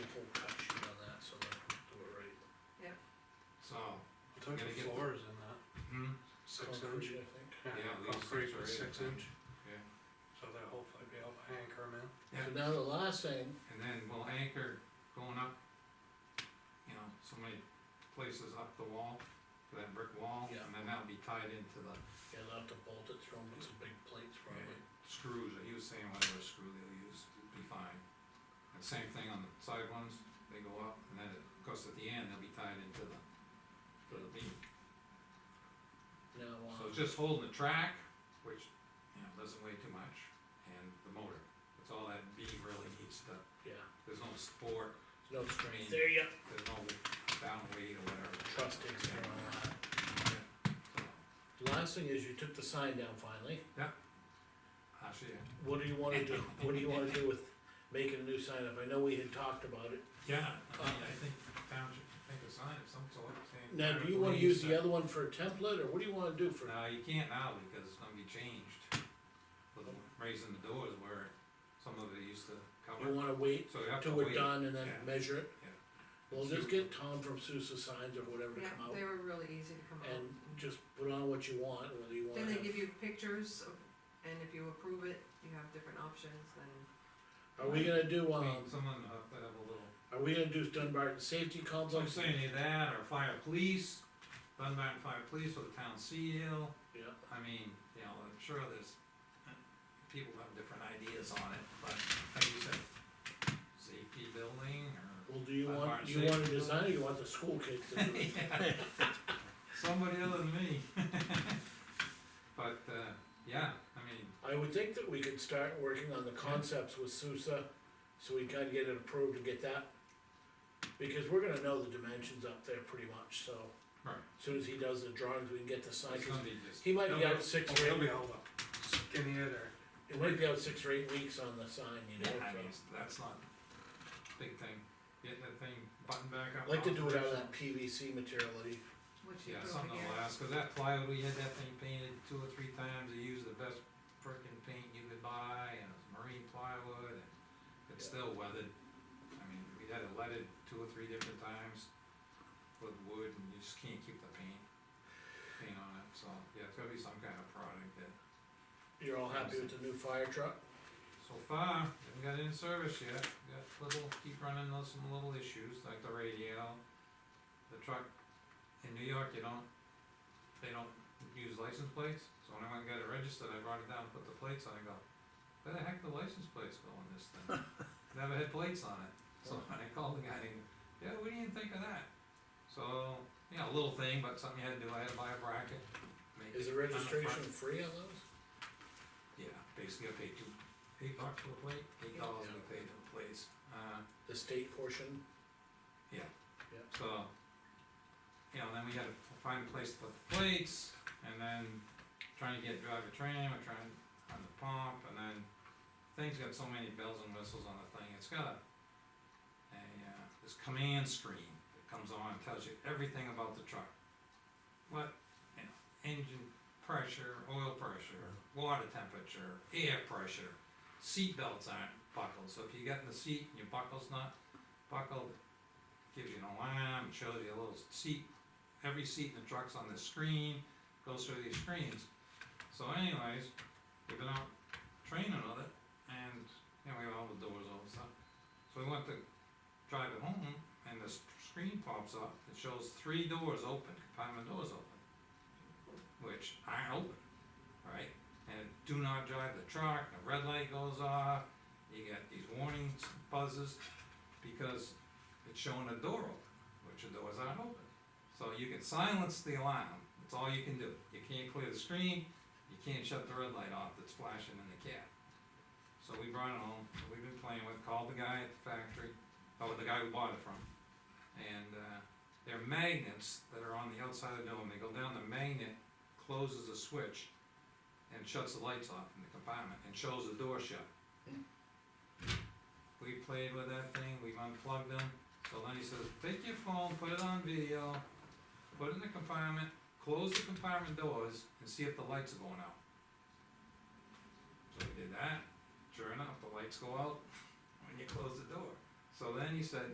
inch, I think. Yeah, these Concrete things are was eight six inch. inch, Yeah. so they'll hopefully be able to anchor them in. So now the last thing, And then we'll anchor going up, you know, so many places up the wall, to that brick wall, Yeah. and then that'll be tied into the you'll have to bolt it through with some big plates probably. screws, that he was saying whatever screw they'll use, it'll be fine. And same thing on the side ones, they go up, and then it, of course, at the end, they'll be tied into the, to the beam. Now, So uh, it's just holding the track, which, you know, doesn't weigh too much, and the motor, that's all that beam really needs to, yeah, there's no sport, no strain, mean- there you, there's no down weight or whatever. trust takes care of that. So, Last thing is you took the sign down finally, Actually, yeah. what do you wanna do, what do you wanna do with making a new sign up, I know we had talked about it. Yeah, I mean, I think the town should think of sign of some sort, saying. Now, do you wanna Please, use uh, the other one for a template, or what do you wanna do for, No, you can't now, because it's gonna be changed, with raising the doors where some of it used to you cover, wanna wait so you have to till we're wait. done and then yeah. measure it? Yeah. Well, just get Tom from Sousa Signs or whatever to Yeah, come out, they were really easy to come out. and just put on what you want, whether you wanna Then they have give you pictures, of- and if you approve it, you have different options, then, Are we gonna do, I um, mean, someone have to have a little, are we gonna do Dunbarton Safety so I'm Complex? saying either that, or fire police, Dunbar and fire police with the town seal, Yeah, I mean, you know, I'm sure there's, people have different ideas on it, but like you said, safety building or. well, do you Dunbar want, and do you want a safety design, or you want the school kids to do it? Somebody other than me. But, uh, yeah, I mean, I would think that we could start working on the concepts with Sousa, so we kinda get it approved and get that. Because we're gonna know the dimensions up there pretty much, so. Right. Soon as he does the drawings, we can get the sign, it's 'cause gonna be just, he might They'll be out be- six Oh, or they'll be eight, held up, skinnier there. it might be out six or eight weeks on the sign, you yeah, know, I mean, so. that's not a big thing. Get that thing buttoned back up. I'd Like to do it out of that PVC material that he which you Yeah, throw something will together. last, cause that plywood, we had that thing painted two or three times, they used the best frickin' paint you could buy, and it's marine plywood, and it's Yeah. still weathered. I mean, we had it leaded two or three different times with wood, and you just can't keep the paint, paint on it, so, yeah, it's gotta be some kind of product that, You're all happy with the new fire truck? so far, haven't got it in service yet, got little, keep running into some little issues, like the radio, the truck, in New York, you don't, they don't use license plates, so when I went and got it registered, I brought it down, put the plates on, I go, where the heck the license plates go on this thing? Never had plates on it, so I called the guy, and, yeah, what do you think of that? So, you know, a little thing, but something you had to do, I had to buy a bracket, make Is it the on front. registration free on those? Yeah, basically I paid two, eight bucks for the plate, eight dollars I paid for the plates, uh, The state portion? so. uh, You know, then we had to f- find a place to put the plates, and then trying to get drive a tram, or trying on the pump, and then. Thing's got so many bells and whistles on the thing, it's got a, a, uh, this command screen that comes on, and tells you everything about the truck. What, you know, engine pressure, oil pressure, water temperature, air pressure, seat belts aren't buckled, so if you get in the seat and your buckle's not buckled, gives you an alarm, it shows you a little seat, every seat in the truck's on this screen, goes through these screens. So anyways, we've been out training with it, and, you know, we have all the doors open, so, so we went to drive it home, and the s- screen pops up, it shows three doors open, compartment doors open, which aren't open, right? And do not drive the truck, the red light goes off, you get these warning buzzes, because it's showing a door open, which the doors aren't open. So you can silence the alarm, that's all you can do. You can't clear the screen, you can't shut the red light off that's flashing in the cab. So we brought it home, that we've been playing with, called the guy at the factory, oh, the guy we bought it from. And, uh, they're magnets that are on the outside of the dome, they go down, the magnet closes the switch and shuts the lights off in the compartment and shows the door shut. We played with that thing, we've unplugged them, so then he says, take your phone, put it on video, put it in the compartment, close the compartment doors, and see if the lights are going out. So we did that, sure enough, the lights go out when you close the door. So then he said,